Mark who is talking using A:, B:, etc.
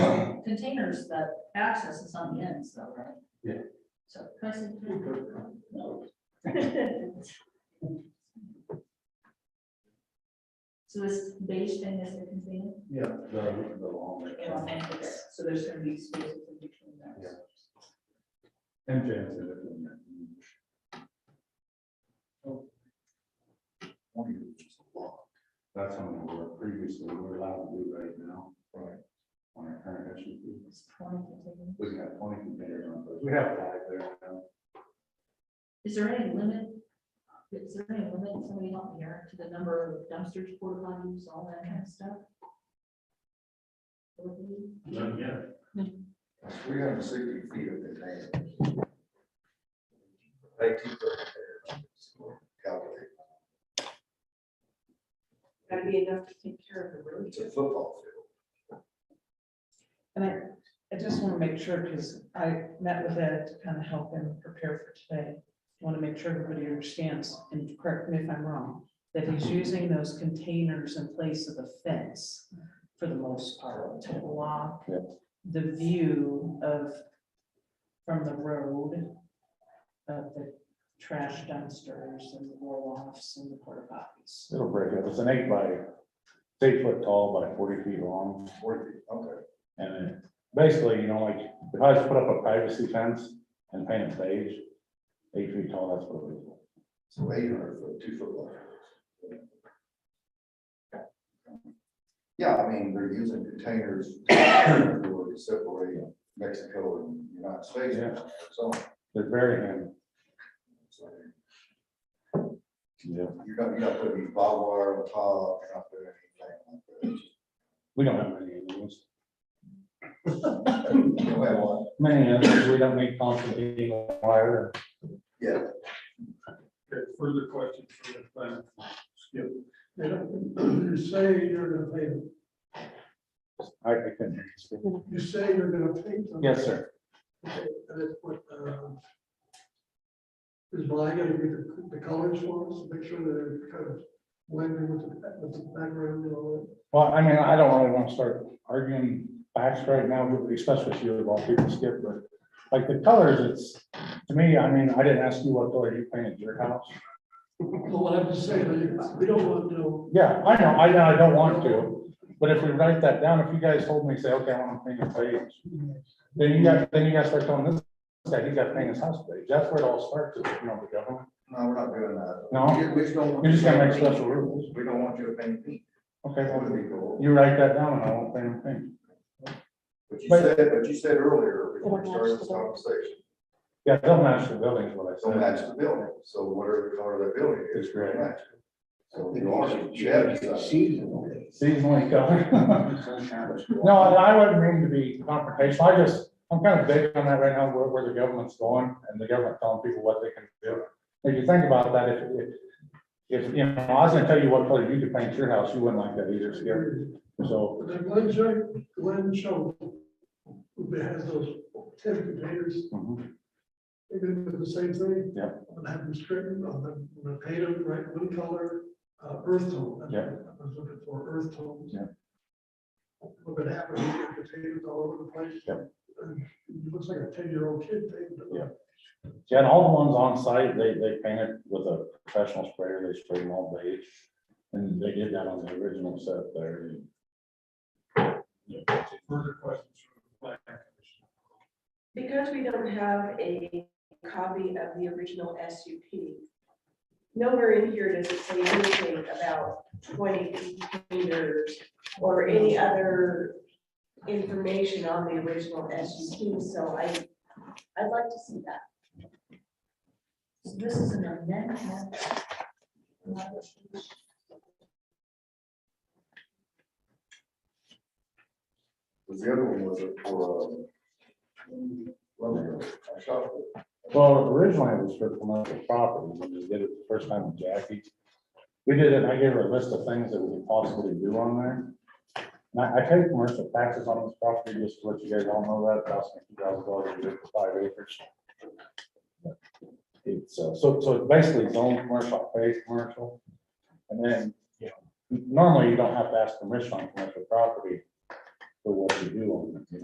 A: containers, the access is on the ends though, right?
B: Yeah.
A: So. can I see? So this beige thing is the container?
B: Yeah. The, the long.
A: So there's gonna be spaces in between
B: Yeah.
A: those.
B: MJ has it in there. That's something we were previously, we were allowed to do right now. Right. On our current issue,
A: It's twenty containers.
B: we can have twenty containers on, but we have five there now.
A: Is there any limit? Is there any limit, somebody help me here, to the number of dumpsters, porta potties, all that kind of stuff?
C: Three hundred and sixty feet of the land. They keep it there. Calculate.
D: Gotta be enough to take care of the road.
C: It's a football field.
D: And I, I just want to make sure, because I met with Ed to kind of help him prepare for today. Want to make sure everybody understands, and correct me if I'm wrong, that he's using those containers in place of the fence for the most part, to block the view of, from the road, of the trash dumpsters and the roll-offs and the porta potties.
E: It'll break up. It's an eight by, it's eight foot tall by forty feet long.
C: Forty, okay.
E: And then basically, you know, like if I just put up a privacy fence and paint it beige, eight feet tall, that's what it is.
C: So eight hundred foot, two football. fields. Yeah, I mean, they're using containers to separate Mexico and United States.
E: Yeah.
C: So
E: They're very handy.
C: it's like,
E: Yeah.
C: you're not, you're not putting any barbed wire on top, you're not putting anything
E: We don't have many of those.
C: like that. You have one?
E: Many of those, we don't need constantly wire.
C: Yeah.
F: Okay, further questions for the planning? Skip. You say you're gonna pay,
E: I I couldn't. hear you.
F: you say you're gonna pay them.
E: Yes, sir.
F: Okay, And it's what, um, is Blaine gonna be the, the colors for us, make sure that it kind of blending with the, with the background and all
E: Well, I mean, I don't really want to start arguing facts right now, especially if you're about people skip, but like the colors, it's, to me, I mean, I didn't ask you what color you painted your house.
F: that. Well, what I'm just saying, I- we don't want to,
E: Yeah, I know, I know, I don't want to, but if we write that down, if you guys hold me, say, okay, I want to paint a page. Then you got, then you guys start telling this guy, he's got to paint his house page, that's where it all starts, is, you know, the government.
C: No, we're not doing that.
E: No,
C: We- We just don't. want
E: you're just
C: you
E: gonna make
C: paint
E: special rules,
C: pink. We don't want you to paint pink.
E: okay,
C: That would
E: well,
C: be cool.
E: you write that down and I won't paint him pink.
C: But you
E: But-
C: said, but you said earlier, before we
D: It'll match
C: started this
D: the building.
C: conversation,
E: Yeah, they'll match the buildings, what
C: so
E: I
C: match
E: said.
C: the building, so whatever the color of that building is.
E: It's great.
C: match it. So you are, you have decided.
E: Seasonally colored. No, I wouldn't mean to be confrontational, I just, I'm kind of big on that right now, where, where the government's going, and the government telling people what they can do. If you think about that, if, if, if, you know, I was gonna tell you what color you could paint your house, you wouldn't like that either, Skip. so,
F: but then Glenn showed, Glenn showed, who has those ten containers,
E: mhm,
F: They're gonna do the same thing.
E: Yeah.
F: I'm gonna have them straightened, I'm gonna, I'm gonna paint them right one color, uh, earth tone. That's
E: Yeah.
F: what I was looking for earth tones.
E: Yeah.
F: What would happen, you get potatoes all over the place.
E: Yeah.
F: And It looks like a ten-year-old kid painted it.
E: Yeah. yeah, and all the ones on site, they, they painted with a professional sprayer, they sprayed them all beige. And they did that on the original set there. Yeah.
F: Further questions from the planning commission?
G: Because we don't have a copy of the original SUP, nowhere in here does it say anything about twenty containers or any other information on the original SUP, so I, I'd like to see that.
A: So this is an amendment.
C: Was the other one was it for, um, well, I shot it.
E: Well, originally it was for commercial property, when we did it the first time with Jackie. We did it, I gave her a list of things that we could possibly do on there. And I, I paid commercial taxes on this property, just to let you guys all know that, about fifty thousand dollars a year for five acres. It's, uh, so, so it's basically it's only commercial, paid commercial. And then, you know, normally you don't have to ask permission on commercial property for what you do on it, you know.